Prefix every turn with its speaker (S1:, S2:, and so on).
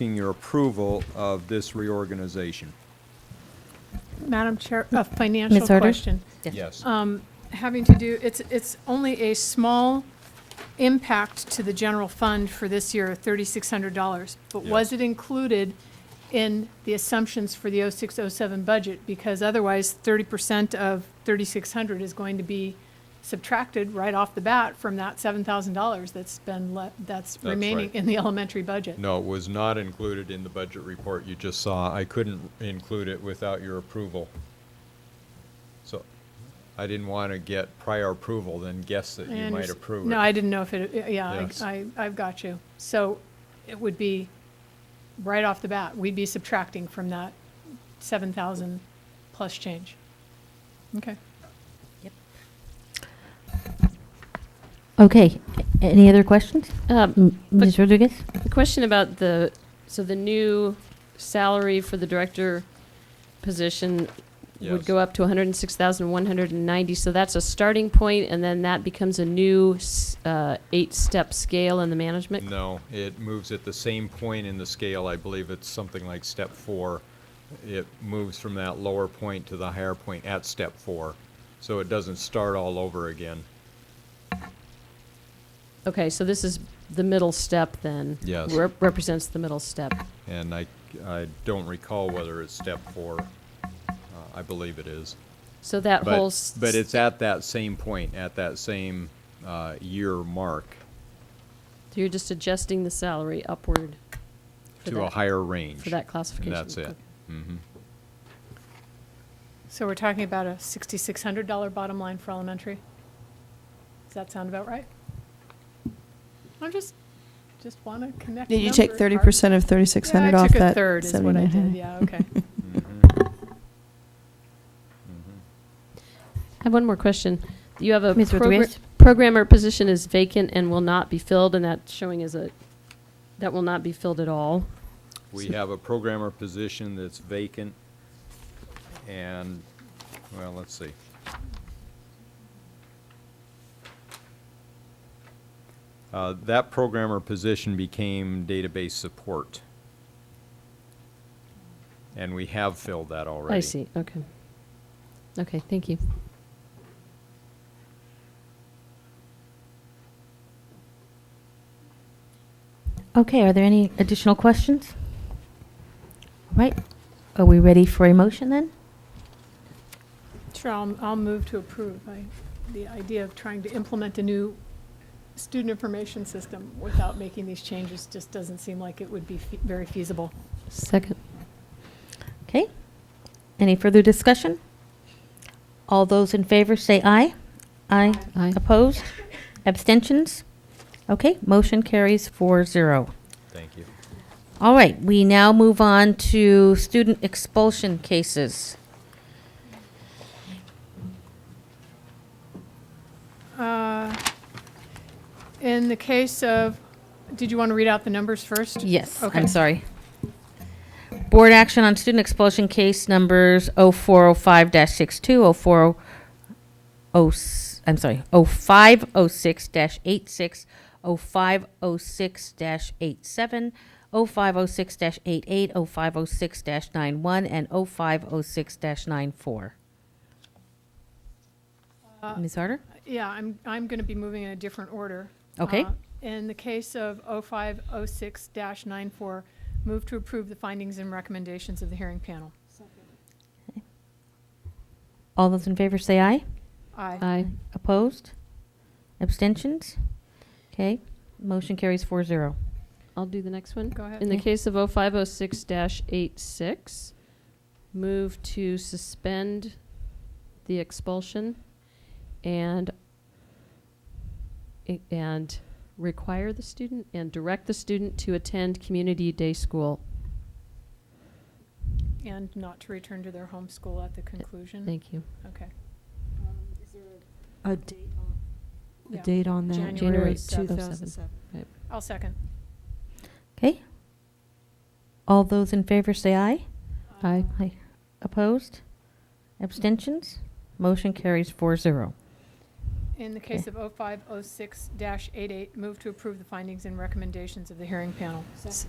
S1: seeking your approval of this reorganization.
S2: Madam Chair, a financial
S3: Harder?
S2: question.
S1: Yes.
S2: Um, Having to do, it's, it's only a small impact to the general fund for this year, $3,600. But
S1: Yes.
S2: was it included in the assumptions for the 0607 budget? Because otherwise, 30% of 3,600 is going to be subtracted right off the bat from that $7,000 that's been, le- that's
S1: That's
S2: remaining
S1: right.
S2: in the elementary budget.
S1: No, it was not included in the budget report you just saw. I couldn't include it without your approval. So I didn't want to get prior approval, then guess that
S2: I
S1: you might
S2: underst-
S1: approve it.
S2: No, I didn't know if it, yeah, I-
S1: Yes.
S2: I, I've got you. So it would be, right off the bat, we'd be subtracting from that 7,000 plus change. Okay.
S3: Okay, a- any other questions? Uh,
S4: Um,
S3: M- Ms. Rodriguez?
S4: The question about the, so the new salary for the director position
S1: Yes.
S4: would go up to 106,190, so that's a starting point, and then that becomes a new s- uh, eight-step scale in the management?
S1: No, it moves at the same point in the scale. I believe it's something like step four. It moves from that lower point to the higher point at step four. So it doesn't start all over again.
S4: Okay, so this is the middle step, then?
S1: Yes.
S4: Rep- Represents the middle step.
S1: And I, I don't recall whether it's step four. Uh, I believe it is.
S4: So that whole...
S1: But,
S4: s-
S1: but it's at that same point, at that same uh, year mark
S4: so You're just adjusting the salary upward for
S1: to a
S4: that-
S1: higher range.
S4: For that
S1: And
S4: classification.
S1: that's it. Mm-hmm.
S2: So we're talking about a $6,600 bottom line for elementary? Does that sound about right? I'm just, just want to connect
S5: Did you take
S2: numbers.
S5: thirty percent of thirty-six hundred off
S2: Yeah, I took a
S5: that
S2: third is what I did,
S5: $7,900?
S2: yeah, okay.
S1: Mm. Mm-hmm.
S4: I have one more question. You have a
S3: Ms.
S4: progra-
S3: Rodriguez?
S4: programmer position is vacant and will not be filled, and that's showing as a, that will not be filled at all.
S1: We have a programmer position that's vacant, and, well, let's see. Uh, That programmer position became database support. And we have filled that already.
S4: I see, okay. Okay, thank you.
S3: Okay, are there any additional questions? Right, are we ready for a motion then?
S2: Sure, I'll, I'll move to approve. I, the idea of trying to implement a new student information system without making these changes just doesn't seem like it would be fe- very feasible.
S4: Second.
S3: Okay, any further discussion? All those in favor say aye. Aye.
S4: Aye.
S3: Opposed? Abstentions? Okay, motion carries four zero.
S1: Thank you.
S3: All right, we now move on to student expulsion cases.
S2: Uh, In the case of, did you want to read out the numbers first?
S3: Yes,
S2: Okay.
S3: I'm sorry. Board action on student expulsion case numbers 0405-62, 40 I'm sorry, 0506-86, 0506-87, 0506-88, 0506-91, and 0506-94. Ms. Harder?
S2: Uh, Yeah, I'm, I'm going to be moving in a different order.
S3: Okay.
S2: Uh, In the case of 0506-94, move to approve the findings and recommendations of the hearing panel.
S3: All those in favor say aye.
S2: Aye.
S4: Aye.
S3: Opposed? Abstentions? Okay, motion carries four zero.
S4: I'll do the next one.
S2: Go ahead.
S4: In the
S3: Yeah.
S4: case of 0506-86, move to suspend the expulsion and i- and require the student and direct the student to attend community day school.
S2: And not to return to their home school at the conclusion.
S4: Thank you.
S2: Okay.
S6: Um, A date on,
S2: Yeah.
S6: a date on that?
S2: January
S6: Two
S2: 7th.
S6: thousand seven.
S2: I'll second.
S3: Okay. All those in favor say aye.
S4: Aye.
S3: Aye. Opposed? Abstentions? Motion carries four zero.
S2: In the case of 0506-88, move to approve the findings and recommendations of the hearing panel.
S6: S-